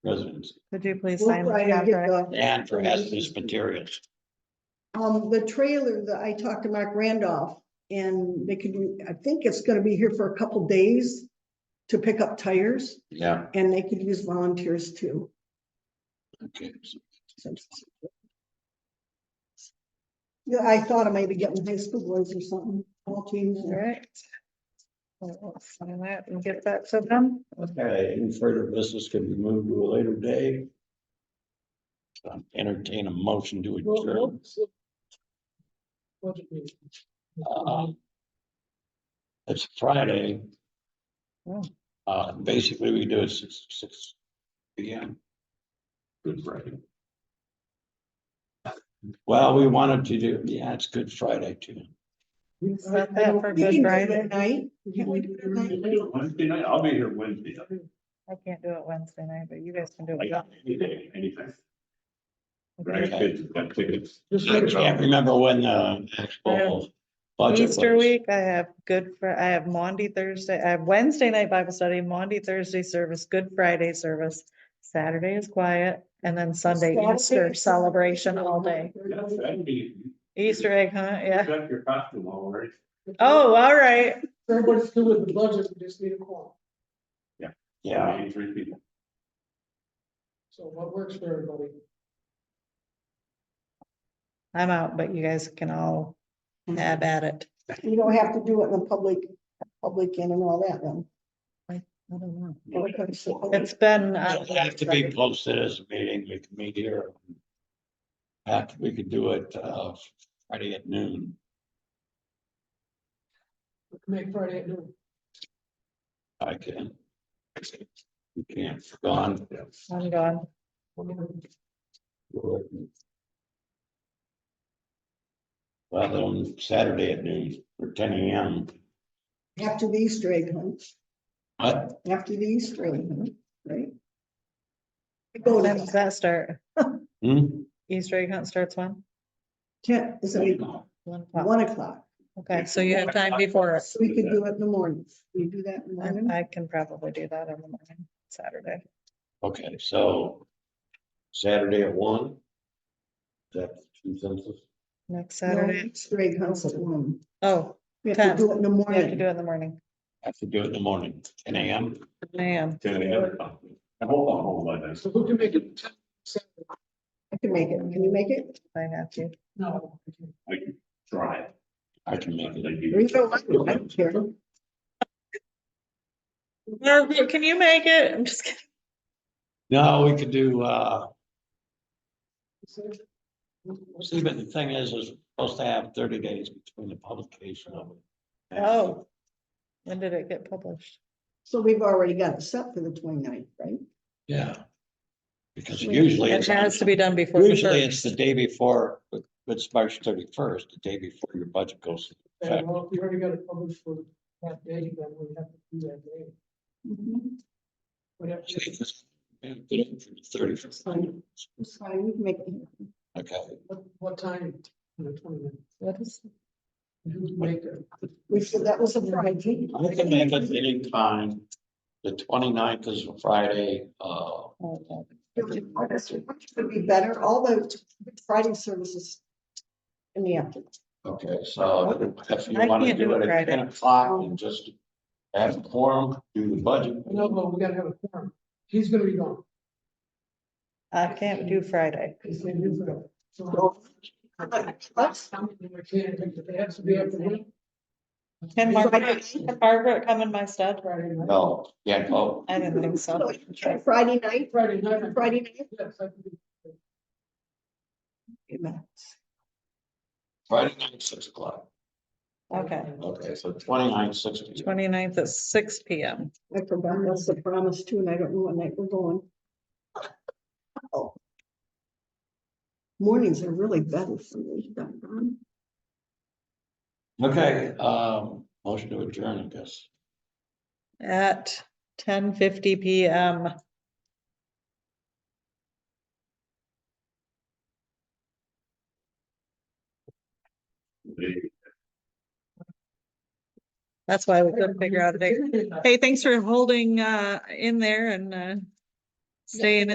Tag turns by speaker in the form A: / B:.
A: residents
B: Could you please
C: We'll
B: sign
C: try
B: the
C: to get
B: contract?
C: the-
A: and for hazardous materials.
C: Um, the trailer that I talked to Mark Randolph and they could, I think it's gonna be here for a couple days to pick up tires
A: Yeah,
C: and they could use volunteers too.
A: okay.
C: Yeah, I thought I might be getting high school boys or something, all teams
B: All
C: there.
B: right. Well, we'll Sign that and get that to them.
A: Okay, any further business can be moved to a later day. Um, Entertain a motion to adjourn. Uh, It's Friday.
B: Oh.
A: Uh, basically, we do it six, six P M. Good Friday. Well, we wanted to do, yeah, it's Good Friday too.
B: Set that for
C: We can do
B: Good
C: it
B: Friday.
C: at Night, can't we do it at night?
D: Wednesday night, I'll be here Wednesday.
B: I can't do it Wednesday night, but you guys can do
D: I
B: it.
D: got any day, anytime.
B: Okay.
D: Right, kids, got tickets.
A: I can't remember when the actual budget was.
B: Easter week, I have good, Fri- I have Monday, Thursday, I have Wednesday night Bible study, Monday, Thursday service, Good Friday service. Saturday is quiet and then Sunday
C: Saturday
B: Easter
C: is-
B: celebration all day.
D: Yeah, that'd be-
B: Easter egg hunt, yeah.
D: Got your costume all right.
B: Oh, all right.
E: Everybody's good with the budget, we just need a call.
A: Yeah,
D: Maybe Three people.
E: So what works for everybody?
B: I'm out, but you guys can all have at it.
C: You don't have to do it in the public, public in and all that then.
B: I don't know. It's
C: It's
B: been. uh,
A: it have to be posted as a meeting, we can meet here. After, we could do it, uh, Friday at noon.
E: We can Make Friday at noon.
A: I can. You can't, gone.
B: I'm gone.
A: Well, on Saturday at noon or ten AM,
C: after the Easter egg hunt,
A: but
C: after the Easter egg hunt, right? It
B: When
C: goes
B: does that start?
A: hmm,
B: Easter egg hunt starts when?
C: ten, is it
B: One o'clock.
C: one o'clock?
B: Okay, so you have time before it.
C: So we could do it in the morning. We do that in the morning.
B: I I can probably do that on the morning, Saturday.
A: okay, so Saturday at one. That's consensus.
B: Next
C: No,
B: Saturday.
C: Easter egg hunts at one.
B: Oh,
C: We have to do it in the
B: we have to do it
C: morning.
B: in the morning.
A: Have to do it in the morning, ten AM.
B: Man,
D: Ten AM. I hope I'm home by then.
E: So who can make it?
C: I can make it. Can you make it?
B: I have to.
E: No.
D: I can drive.
A: I can make it.
C: Or you don't like it? I don't care.
B: Margaret, can you make it? I'm just kidding.
A: No, we could do, uh, see, but the thing is, is we're supposed to have thirty days between the publication of it.
B: Oh. When did it get published?
C: So we've already got it set for the 29th, right?
A: Yeah. Because usually
B: It
A: it's. on
B: has to be done before. the
A: Usually it's the
B: first.
A: day before, but but it's March thirty-first, the day before your budget goes. into
E: And
A: effect.
E: well, if you already got it published for that day, then we have to do that day.
C: Mm-hmm.
E: We have to-
A: Thirty-first,
C: It's fine. We can make it. happen.
A: okay,
E: What, what time? You know, twenty minutes.
B: What is,
E: Who can make it?
C: We said that was a Friday.
A: I can make it any time, the 29th is a Friday, uh,
B: oh,
C: Would be better. All the Friday services in the afternoon.
A: okay, so if you
B: I
A: wanna
B: can't
A: do
B: do
A: it
B: it
A: at ten
B: Friday.
A: o'clock and just have a quorum, do the budget.
E: No, no, we gotta have a forum. He's gonna be gone.
B: I can't do Friday.
E: He's gonna do it. So.
C: So-
E: We can't, it has to be after work
B: Can Margaret, can Margaret come in my stead?
E: Friday night.
A: No, yeah, oh,
B: I didn't think so.
C: Friday night,
E: Friday night.
C: Friday night.
E: Yes, I can do.
A: Friday night, six o'clock,
B: Okay.
A: okay, so 29th, six. o'clock.
B: 29th at six P M.
C: I forgot, that's the promise too, and I don't know what night we're going. Oh. Mornings are really better for me, doggone.
A: Okay, um, motion to adjourn, I guess.
B: At ten fifty P M. That's why we couldn't figure out a date. Hey, thanks for holding uh in there and uh. Staying